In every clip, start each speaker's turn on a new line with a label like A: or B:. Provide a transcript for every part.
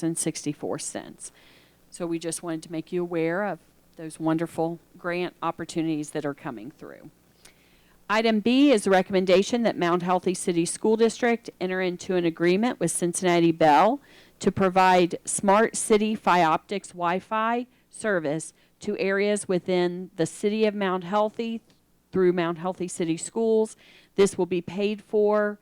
A: $69,955.64. So we just wanted to make you aware of those wonderful grant opportunities that are coming through. Item B is a recommendation that Mount Healthy City School District enter into an agreement with Cincinnati Bell to provide smart city Fioptics Wi-Fi service to areas within the city of Mount Healthy through Mount Healthy City Schools. This will be paid for.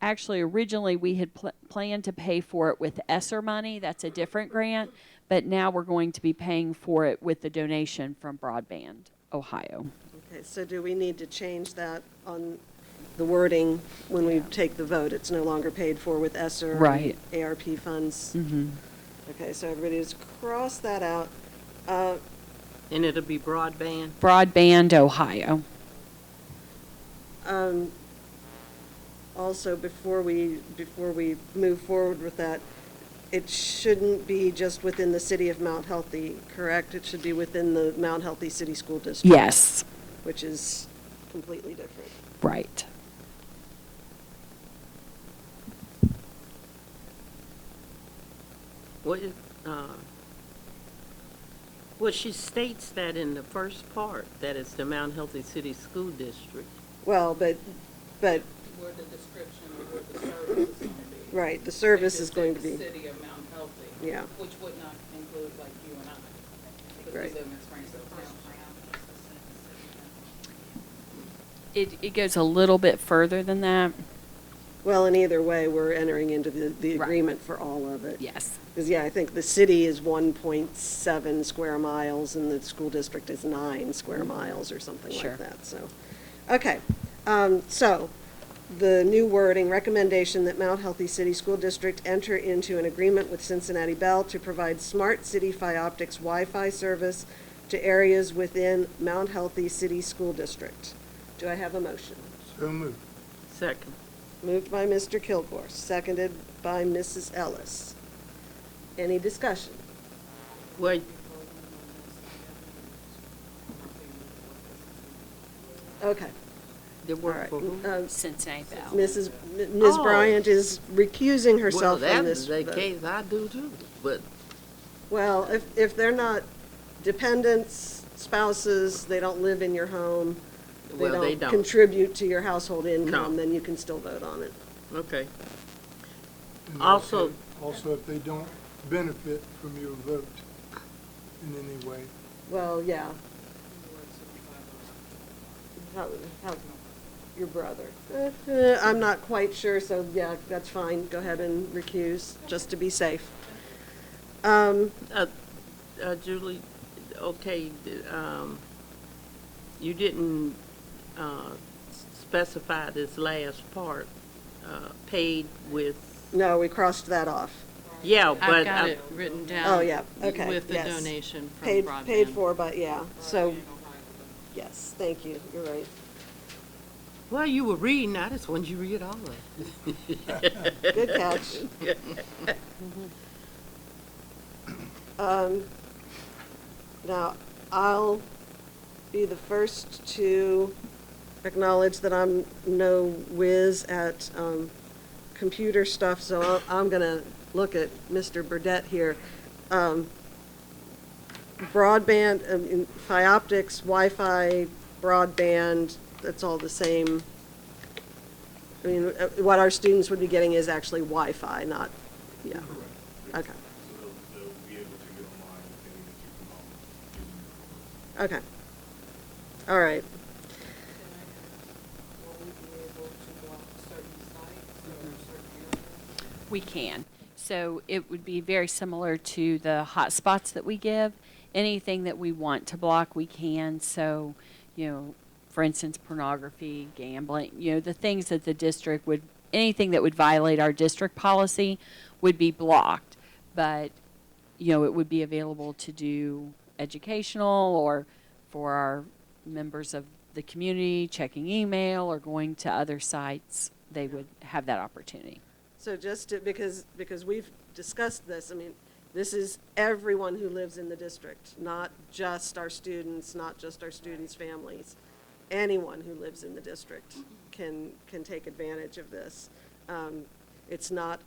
A: Actually, originally, we had pl- planned to pay for it with ESSER money. That's a different grant. But now we're going to be paying for it with the donation from Broadband Ohio.
B: Okay, so do we need to change that on the wording when we take the vote? It's no longer paid for with ESSER.
A: Right.
B: ARP funds? Mm-hmm. Okay, so everybody just cross that out. Uh,
C: And it'll be broadband?
A: Broadband Ohio.
B: um, Also, before we, before we move forward with that, it shouldn't be just within the city of Mount Healthy, correct? It should be within the Mount Healthy City School District.
A: Yes,
B: Which is completely different.
A: right.
C: What, is- uh, well, she states that in the first part, that it's the Mount Healthy City School District.
B: Well, but, but
D: where the description of where the service is going to be.
B: Right, the service
D: It
B: is
D: just
B: going to
D: said
B: be,
D: the city of Mount Healthy.
B: Yeah.
D: Which would not include like you and I, because we
B: Right.
D: live in Springfield Township.
A: It, it goes a little bit further than that.
B: well, in either way, we're entering into the, the
A: Right.
B: agreement for all of it.
A: Yes.
B: Because, yeah, I think the city is 1.7 square miles and the school district is nine square miles or something
A: Sure.
B: like that, so. Okay, um, so the new wording, recommendation that Mount Healthy City School District enter into an agreement with Cincinnati Bell to provide smart city Fioptics Wi-Fi service to areas within Mount Healthy City School District. Do I have a motion?
E: So moved.
C: Second,
B: Moved by Mr. Kilgore, seconded by Mrs. Ellis. Any discussion?
C: well,
B: Okay,
C: the
B: all
C: work
B: right.
C: for who?
B: Um,
A: Cincinnati Bell.
B: Mrs., M- Ms.
C: Oh.
B: Bryant is recusing
C: Well,
B: herself from this
C: that's the
B: vote.
C: case, I do too, but
B: Well, if, if they're not dependents, spouses, they don't live in your home, they
C: Well, they
B: don't
C: don't.
B: contribute to your household income,
C: No.
B: then you can still vote on it.
C: Okay,
E: And
C: Also-
E: Also, if they don't benefit from your vote in any way.
B: Well, yeah. How, how, your brother. Eh, eh, I'm not quite sure, so yeah, that's fine. Go ahead and recuse, just to be safe. Um,
C: uh, uh, Julie, okay, d- um, you didn't, uh, s- specify this last part, uh, paid with,
B: no, we crossed that off.
C: yeah, but.
D: I've got
C: I'm-
D: it written down.
B: Oh, yeah, okay,
D: With the
B: yes.
D: donation from
B: Paid,
D: broadband.
B: paid for, but yeah, so, yes, thank you, you're right.
C: Well, you were reading, I just wanted you to read all of it.
B: Good catch. Um, Now, I'll be the first to acknowledge that I'm no whiz at um, computer stuff, so I'll- I'm going to look at Mr. Burdette here. Um, Broadband, I mean, Fioptics, Wi-Fi, broadband, that's all the same. I mean, uh, what our students would be getting is actually Wi-Fi, not, yeah, okay.
F: So they'll, they'll be able to get online if they need to come home.
B: Okay. All right.
A: We can. So it would be very similar to the hotspots that we give. Anything that we want to block, we can. So, you know, for instance, pornography, gambling, you know, the things that the district would, anything that would violate our district policy would be blocked. But, you know, it would be available to do educational or for our members of the community checking email or going to other sites. They would have that opportunity.
B: So just to, because, because we've discussed this, I mean, this is everyone who lives in the district, not just our students, not just our students' families. Anyone who lives in the district can, can take advantage of this. Um, It's not